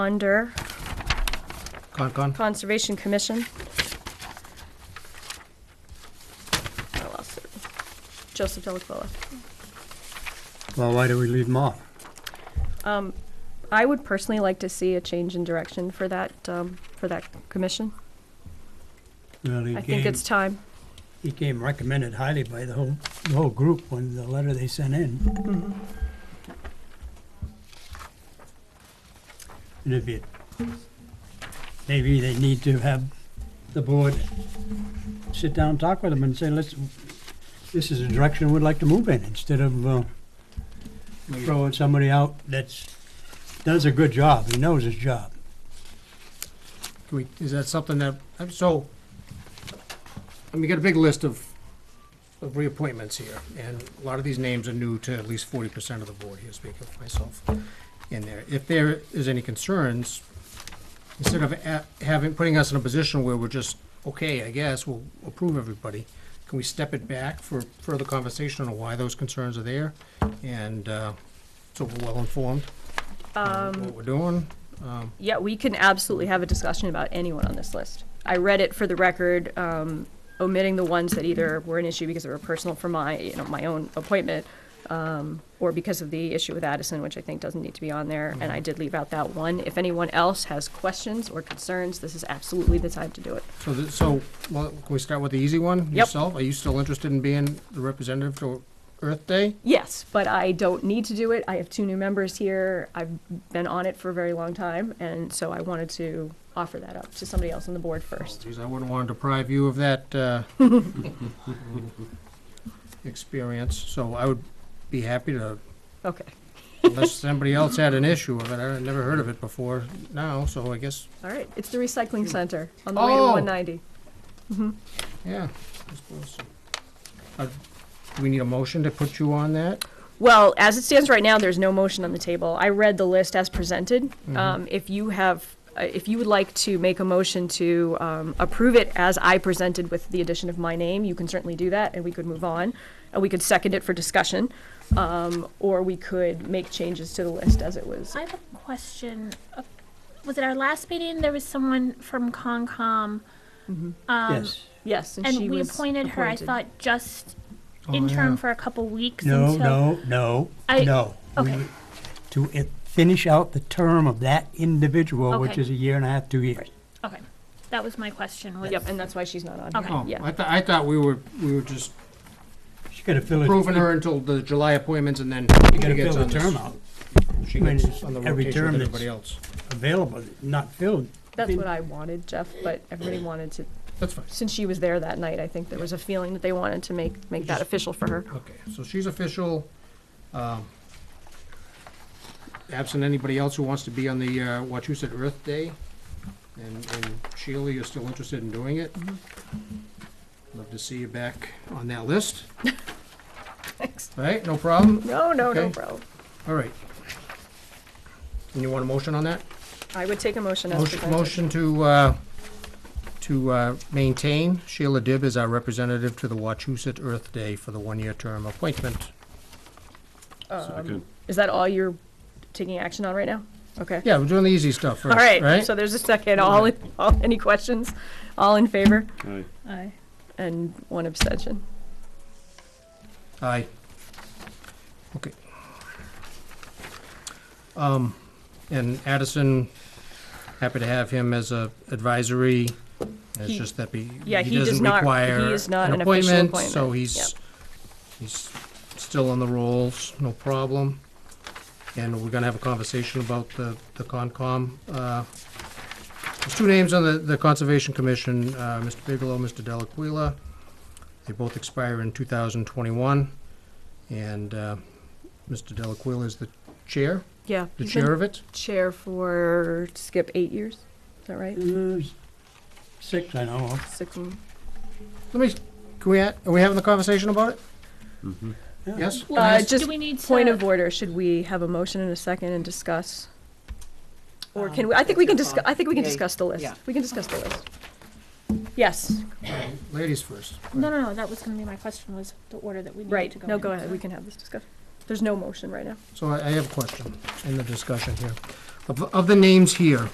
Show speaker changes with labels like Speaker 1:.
Speaker 1: under
Speaker 2: Con, con.
Speaker 1: Conservation Commission. I lost it. Joseph Delacola.
Speaker 2: Well, why do we leave them off?
Speaker 1: Um, I would personally like to see a change in direction for that, um, for that commission.
Speaker 2: Well, he
Speaker 1: I think
Speaker 2: came,
Speaker 1: it's time.
Speaker 2: he came recommended highly by the whole, the whole group when the letter they sent in.
Speaker 1: Mm-hmm.
Speaker 2: And if it, maybe they need to have the board sit down, and talk with them and say, let's, this is a direction we'd like to move in, instead of, uh, throwing somebody out that's, does a good job, he knows his job.
Speaker 3: Can we, is that something that, I'm so, I mean, you got a big list of, of reappointments here, and a lot of these names are new to at least forty percent of the board here, speaking for myself in there. If there is any concerns, instead of a- having, putting us in a position where we're just, okay, I guess, we'll approve everybody, can we step it back for further conversation on why those concerns are there? And, uh, so we're well informed on what we're doing.
Speaker 1: Yeah, we can absolutely have a discussion about anyone on this list. I read it for the record, um, omitting the ones that either were an issue because they were personal for my, you know, my own appointment, um, or because of the issue with Addison, which I think doesn't need to be on there, and I did leave out that one. If anyone else has questions or concerns, this is absolutely the time to do it.
Speaker 3: So, the- so, well, can we start with the easy one? Yourself, are you still interested in being the representative to Earth Day?
Speaker 1: Yes, but I don't need to do it. I have two new members here. I've been on it for a very long time, and so I wanted to offer that up to somebody else on the board first.
Speaker 3: Geez, I wouldn't want to deprive you of that, uh, experience, so I would be happy to,
Speaker 1: Okay,
Speaker 3: unless somebody else had an issue with it, I've never heard of it before now, so I guess,
Speaker 1: all right. It's the recycling center on the way to
Speaker 3: Hmm. Oh.
Speaker 1: 190.
Speaker 3: yeah. I suppose so. Uh, Do we need a motion to put you on that?
Speaker 1: Well, as it stands right now, there's no motion on the table. I read the list as presented.
Speaker 3: Mm-hmm.
Speaker 1: Um, If you have, uh, if you would like to make a motion to um, approve it as I presented with the addition of my name, you can certainly do that, and we could move on. And we could second it for discussion, um, or we could make changes to the list as it was.
Speaker 4: I have a question. Uh, Was it our last meeting? There was someone from Concom,
Speaker 1: Um,
Speaker 2: Yes,
Speaker 1: Yes, and she
Speaker 4: and we
Speaker 1: was
Speaker 4: appointed her, I
Speaker 1: appointed.
Speaker 4: thought, just
Speaker 3: Oh,
Speaker 4: interim
Speaker 3: yeah.
Speaker 4: for a couple weeks
Speaker 2: no,
Speaker 4: until.
Speaker 2: no, no,
Speaker 4: I-
Speaker 2: no. We
Speaker 4: okay.
Speaker 2: would- to i- finish out the term of that individual, which
Speaker 4: Okay.
Speaker 2: is a year and a half, two years.
Speaker 4: Okay, that was my question. Was
Speaker 1: Yep, and that's why she's not on
Speaker 4: Okay.
Speaker 1: here.
Speaker 3: Oh,
Speaker 1: Uh, Yeah.
Speaker 3: I thought, I thought we were, we were just
Speaker 2: She gotta fill it.
Speaker 3: approving her until the July appointments and then
Speaker 2: You
Speaker 3: she
Speaker 2: gotta
Speaker 3: gets
Speaker 2: fill the
Speaker 3: on this.
Speaker 2: term out,
Speaker 3: She
Speaker 2: I mean,
Speaker 3: gets
Speaker 2: it's
Speaker 3: on the
Speaker 2: every
Speaker 3: rotation
Speaker 2: term
Speaker 3: with
Speaker 2: that's-
Speaker 3: everybody else.
Speaker 2: available, not filled.
Speaker 1: That's what I wanted, Jeff, but everybody wanted to,
Speaker 3: That's fine.
Speaker 1: since she was there that night, I think there was a feeling that they wanted to make, make that
Speaker 3: Just-
Speaker 1: official for her.
Speaker 3: Okay, so she's official. um, Absent anybody else who wants to be on the uh, Wachusett Earth Day. And and Sheila, you're still interested in doing it?
Speaker 2: Mm-hmm.
Speaker 3: Love to see you back on that list.
Speaker 1: Thanks.
Speaker 3: All right, no problem.
Speaker 1: No, no, no,
Speaker 3: Okay.
Speaker 1: bro.
Speaker 3: All right. And you want a motion on that?
Speaker 1: I would take a motion as
Speaker 3: Motion-
Speaker 1: presented.
Speaker 3: Motion to, uh, to uh, maintain Sheila Dibb as our representative to the Wachusett Earth Day for the one-year term appointment.
Speaker 5: Second.
Speaker 1: Is that all you're taking action on right now? Okay.
Speaker 3: Yeah, we're doing the easy stuff
Speaker 1: All
Speaker 3: first, right?
Speaker 1: right, so there's a second. All, in- all, any questions? All in favor?
Speaker 5: Aye.
Speaker 1: Aye. And one abstention.
Speaker 3: Aye. Okay. Um, and Addison, happy to have him as a advisory. It's
Speaker 1: He-
Speaker 3: just that he,
Speaker 1: yeah,
Speaker 3: he
Speaker 1: he does
Speaker 3: doesn't
Speaker 1: not- he
Speaker 3: require
Speaker 1: is not an
Speaker 3: an
Speaker 1: official
Speaker 3: appointment, so
Speaker 1: appointment.
Speaker 3: he's, he's still on the rolls, no problem. And we're gonna have a conversation about the, the Concom, uh, there's two names on the, the Conservation Commission, uh, Mr. Bigelow, Mr. Delaquila. They both expire in two thousand twenty-one, and, uh, Mr. Delaquila is the chair,
Speaker 1: Yeah.
Speaker 3: the
Speaker 1: he's been
Speaker 3: chair of it.
Speaker 1: Chair for, skip, eight years? Is that right?
Speaker 2: Uh, Six, I know. of.
Speaker 1: Six and.
Speaker 3: Let me, can we, ha- are we having the conversation about it? Yes?
Speaker 1: Uh,
Speaker 3: Yes?
Speaker 1: just
Speaker 4: Do we need to?
Speaker 1: Point of order, should we have a motion in a second and discuss? Or can we, I think we can discuss, I think we can discuss the list. We can discuss the list. Yes,
Speaker 3: Ladies first.
Speaker 4: No, no, no. That was going to be my question. Was the order that we needed
Speaker 1: right.
Speaker 4: to go?
Speaker 1: No,
Speaker 4: in.
Speaker 1: go ahead, we can have this discussion. There's no motion right now.
Speaker 3: So I I have a question in the discussion here. Of, of the names here,